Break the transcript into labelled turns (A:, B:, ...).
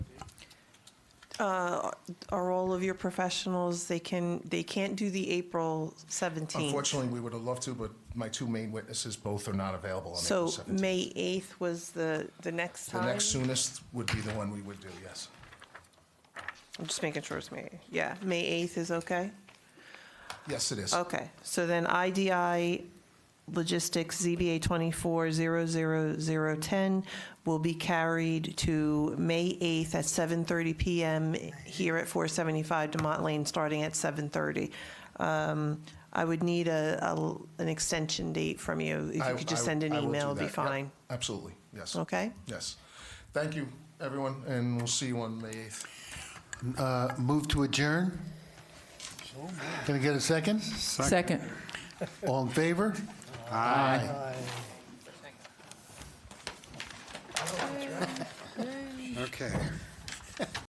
A: uh, are all of your professionals, they can, they can't do the April 17th.
B: Unfortunately, we would have loved to, but my two main witnesses, both are not available on April
A: So
B: 17th.
A: May 8th was the, the next
B: The
A: time?
B: next soonest would be the one we would do, yes.
A: I'm just making sure it's May. Yeah, May 8th is okay?
B: Yes, it is.
A: Okay, so then IDI Logistics ZBA 2400010 will be carried to May 8th at 7:30 PM here at 475 Demont Lane, starting at 7:30. Um, I would need a, a- an extension date from you. If
B: I-
A: you could just
B: I-
A: send an
B: I will do
A: email, it'd be
B: that. Yep,
A: fine.
B: Absolutely, yes.
A: Okay?
B: Yes. Thank you, everyone, and we'll see you on May 8th.
C: Uh, Move to adjourn? Can I get a second?
D: Second.
C: All in favor? Aye.
E: Okay.